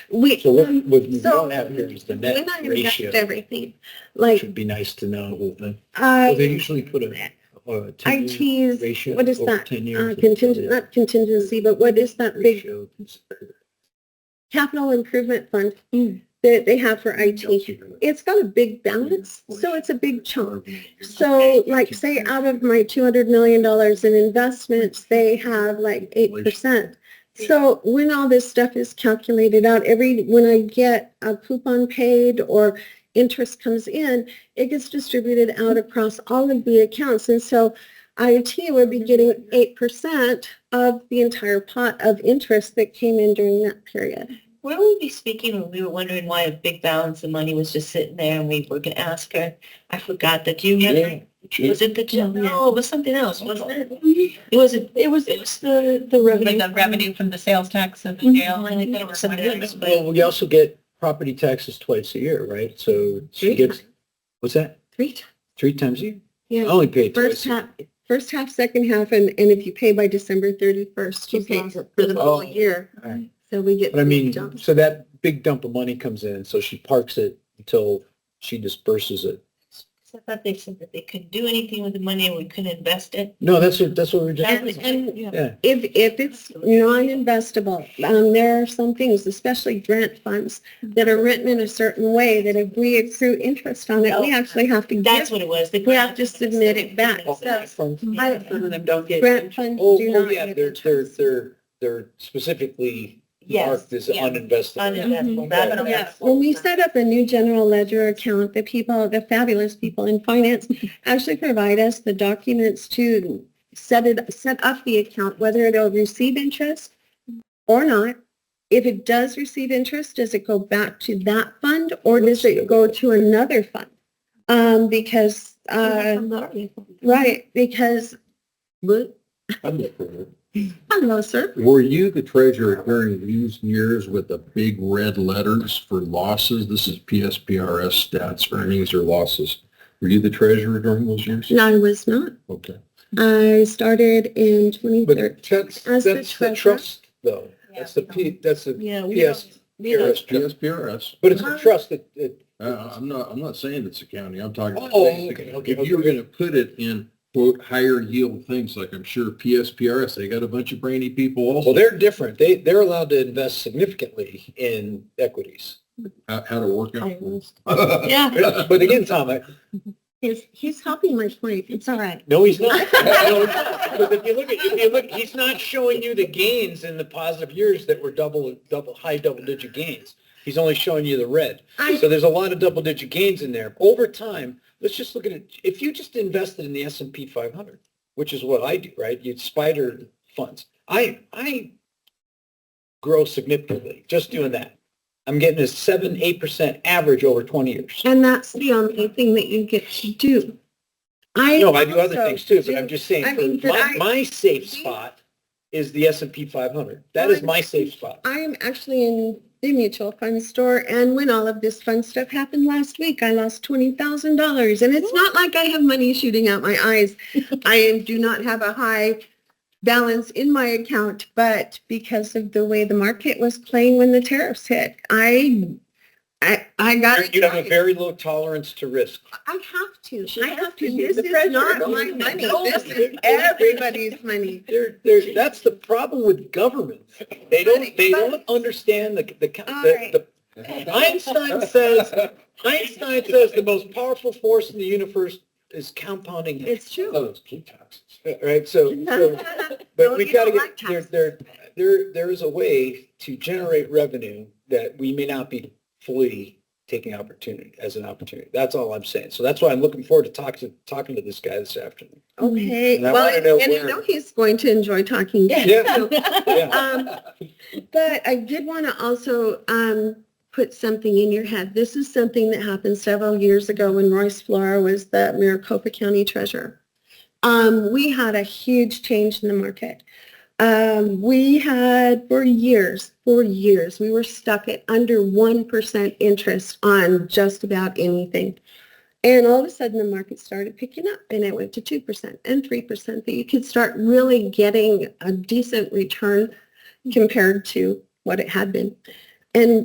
We, So what, um, what we so don't have here is the when net I invest ratio. everything, like, Should be nice to know. uh, well, They I, usually put a, a I ten-year tease, ratio what is over that? ten Uh, years. contingent, not contingency, but what is that big ratio. capital improvement fund Mm. that they have for IT? It's got a big balance, so it's a big chunk. So like say out of my two hundred million dollars in investments, they have like eight percent. So when all this stuff is calculated out, every, when I get a coupon paid or interest comes in, it gets distributed out across all of the accounts. And so IOT would be getting eight percent of the entire pot of interest that came in during that period. Where would we be speaking when we were wondering why a big balance of money was just sitting there and we were going to ask her? I forgot that. Do you remember? Was it the gym? No, yeah. No, it was something else, wasn't it? It was, it was, it was the, the revenue. With the revenue from the sales tax of the Mhm. jail. I think that was something else, but- Well, we also get property taxes twice a year, right? So she Three gets, what's that? Three times. Three times a year? I Yeah, only paid first twice. a year. half, first half, second half, and, and if you pay by December thirty-first, you Just pay lost for it. the Oh. whole year. Alright. So we get. But I big mean, jumps. so that big dump of money comes in, so she parks it until she disperses it. I thought they said that they couldn't do anything with the money and we couldn't invest it. No, that's what, that's what we we're And- just, and- Yeah. yeah. If, if it's non-investable, um, there are some things, especially grant funds, that are written in a certain way that if we accrue interest on it, we actually have to That's give. what it was. They We have to submit it back, Oh, so- funds. I- Some of them don't get. Grant funds Oh, do oh, not yeah, get they're, they're, interest. they're, they're specifically Yes, marked as yes. uninvested. Uninvestable. Mhm. That's what it Yeah, was. when we set up a new general ledger account, the people, the fabulous people in finance actually provide us the documents to set it, set up the account, whether it'll receive interest or not. If it does receive interest, does it go back to that fund or does it go to another fund? Um, because, uh, right, because, hello, sir. Were you the treasurer during these years with the big red letters for losses? This is PSPRS stats, earnings or losses. Were you the treasurer during those years? No, I was not. Okay. I started in 2013. But that's, As the that's the treasurer. trust though. That's the, P- that's the Yeah. we PS, don't- we don't- PRS trust. PSPRS. But it's a trust that, it, Uh, I'm not, I'm not saying it's accounting. I'm talking. about Oh, basic. okay, okay, If you're going to put it in quote, higher yield things, like I'm sure PSPRS, they got a bunch of brainy people well, also. they're different. They, they're allowed to invest significantly in equities. How, how to work out. Yeah. But but again, Tom, I- He's, he's helping my point. It's all right. no, he's not. No, he's not. Because if you look at, if you look, he's not showing you the gains in the positive years that were double, double, high double digit gains. He's only showing you the red. I- So there's a lot of double digit gains in there. Over time, let's just look at it. If you just invested in the S and P 500, which is what I do, right? You'd spider funds. I, I grow significantly just doing that. I'm getting a seven, 8% average over 20 years. And that's the only thing that you get to do. I. No, I do other also things too, but I'm do- just saying, I mean, for but my, I- my safe do- spot is the S and P 500. That is my safe spot. I am actually in the mutual fund store and when all of this fun stuff happened last week, I lost twenty thousand dollars. And it's not like I have money shooting out my eyes. I am, do not have a high balance in my account, but because of the way the market was playing when the tariffs hit, I, I, I got. You have a excited. very low tolerance to risk. I have to. She I has have to to. be This the is treasurer. not Don't my you money. know? This is everybody's money. There, there, that's the problem with government. They don't, they don't understand the, the, All the, the, Einstein says, Einstein says the most powerful force in the universe is compounding. It's true. loads. Right, so, so, but Don't we you gotta don't get, there, like there, there, there is a way to generate revenue that we may not be fully taking opportunity, as an opportunity. That's all I'm saying. So that's why I'm looking forward to talking, talking to this guy this afternoon. Okay, And I well, wanna know and I where- know he's going to enjoy talking. to you. Yeah, yeah. Um, But I did want to also um, put something in your head. This is something that happened several years ago when Royce Flora was the Maricopa County Treasurer. Um, We had a huge change in the market. Um, We had, for years, for years, we were stuck at under 1% interest on just about anything. And all of a sudden, the market started picking up and it went to 2% and 3% that you could start really getting a decent return compared to what it had been. And